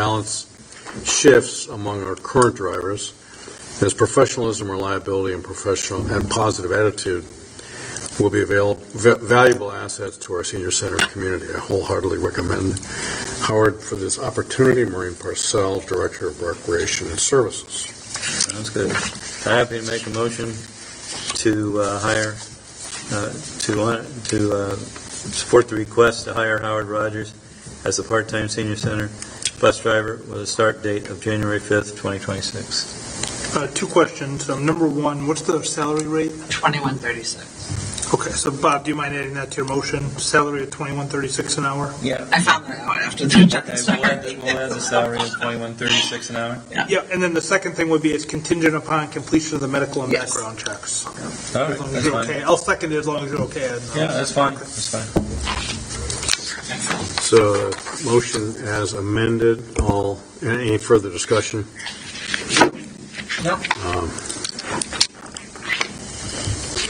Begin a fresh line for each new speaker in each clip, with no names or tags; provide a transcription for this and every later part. balance shifts among our current drivers. As professionalism, reliability, and professional, and positive attitude will be available, valuable assets to our senior center community. I wholeheartedly recommend Howard for this opportunity, Maureen Parcell, Director of Recreation and Services.
Sounds good. I'm happy to make a motion to uh, hire, uh, to, uh, to uh, support the request to hire Howard Rogers as a part-time senior center bus driver with a start date of January 5th, 2026.
Uh, Two questions. Um, Number one, what's the salary rate?
2136.
Okay, so Bob, do you mind adding that to your motion? Salary of twenty-one thirty-six an hour?
Yeah.
I found that out after the job
Okay, we'll add the-
started.
we'll add the salary of 2136 an hour.
Yeah, and then the second thing would be it's contingent upon completion of the medical and
Yes.
background checks.
All
As
right,
long as
that's
you're
fine.
okay. I'll second it as long as you're okay. Ed.
Yeah, that's fine, that's fine.
So, motion as amended, all, any further discussion?
No.
Um,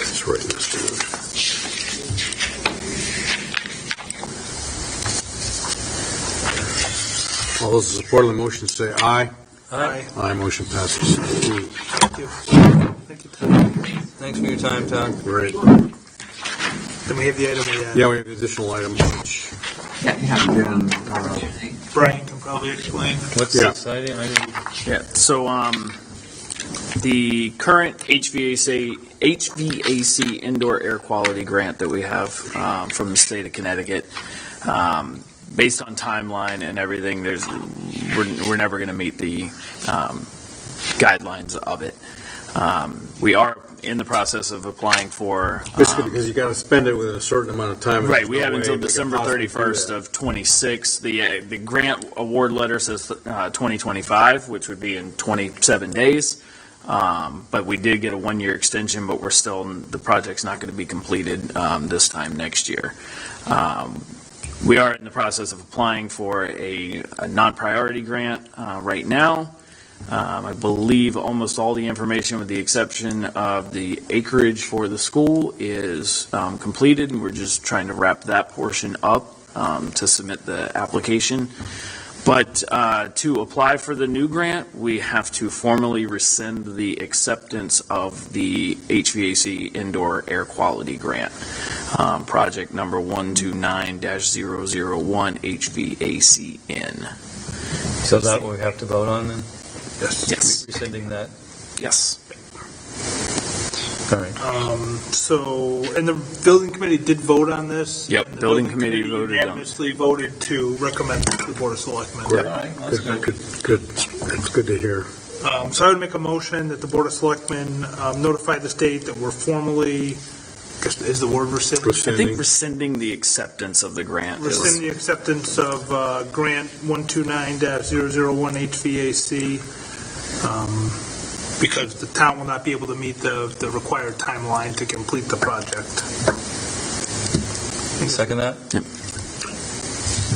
Just writing this down. All those in support of the motion say aye.
All
Aye.
right,
Aye, motion passes.
Thank you. Thank you. Tom.
thanks for your time, Todd.
Great.
Then we have the item we had.
Yeah, we have an additional item, which,
Yeah, you have an
again, uh,
opportunity.
Brian can probably explain.
What's
Yeah.
exciting? I didn't-
Yeah, so, um, the current HVAC, HVAC indoor air quality grant that we have, um, from the state of Connecticut, um, based on timeline and everything, there's, we're, we're never gonna meet the, um, guidelines of it. Um, we are in the process of applying for.
basically
um,
because you gotta spend it within a certain amount of time.
Right, we
There's
have
no
until
way they could
December
possibly do
thirty-first
that.
of twenty-six. The, uh, the grant award letter says, uh, twenty twenty-five, which would be in twenty-seven days. Um, but we did get a one-year extension, but we're still, the project's not gonna be completed, um, this time next year. Um, we are in the process of applying for a, a non-priority grant, uh, right now. Um, I believe almost all the information, with the exception of the acreage for the school, is um, completed, and we're just trying to wrap that portion up um, to submit the application. But uh, to apply for the new grant, we have to formally rescind the acceptance of the HVAC indoor air quality grant, um, project number 129-001 HVACN.
So that what we have to vote on then?
Yes.
Rescinding that?
Yes.
All right.
Um, So, and the building committee did vote on this?
Yep,
And the
building committee voted on it.
Unanimously voted to recommend to the board of selectmen.
Correct.
That's
Good,
good.
Good, good, that's good to hear.
Um, So I would make a motion that the Board of Selectmen um, notify the state that we're formally, is the word rescind?
I think
Rescinding.
rescinding the acceptance of the grant is,
Rescind the acceptance of uh, grant 129-001 HVAC, um, because the town will not be able to meet the, the required timeline to complete the project.
Second that?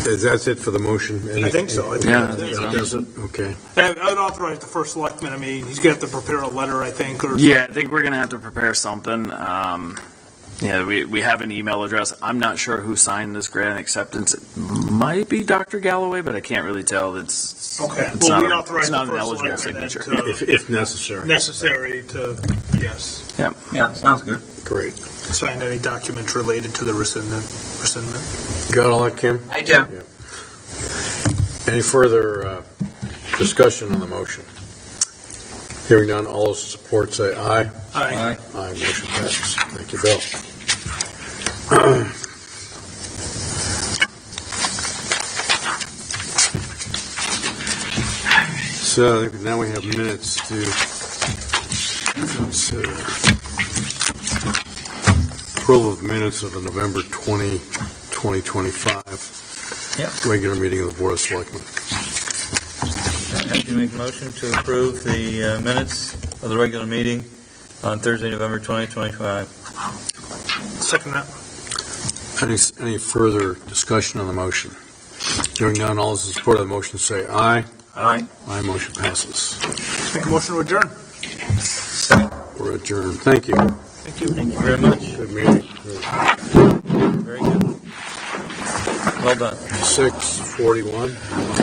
Is that it for the motion?
I think so. I think
Yeah,
that's it.
I think
Does it? Okay.
And I would authorize the first selectman, I mean, he's going to have to prepare a letter, I think, or.
yeah, I think we're gonna have to prepare something. Um, yeah, we, we have an email address. I'm not sure who signed this grant acceptance. It might be Dr. Galloway, but I can't really tell. It's,
Okay,
it's
well,
not,
we
a-
authorize
it's
the
not an
first
eligible
selectman then
signature.
to-
If, if necessary.
necessary to, yes,
Yeah, sounds good.
Great.
sign any documents related to the rescindment, rescindment.
Got all that, Kim?
I do.
Any further uh, discussion on the motion? Hearing none, all those in support say aye.
Aye.
Aye, motion passes. Thank you, Bill. So now we have minutes to consider. Approval of minutes of the November 20, 2025
Yep.
regular meeting of the Board of Selectmen.
Happy to make a motion to approve the uh, minutes of the regular meeting on Thursday, November 20, 2025.
Second that.
Any, any further discussion on the motion? Hearing none, all those in support of the motion say aye.
All right.
Aye, motion passes.
Make a motion to adjourn.
We're adjourned. Thank you.
Thank you.
Thank you very much.
Good meeting.
Very good. Well done.
Six forty-one.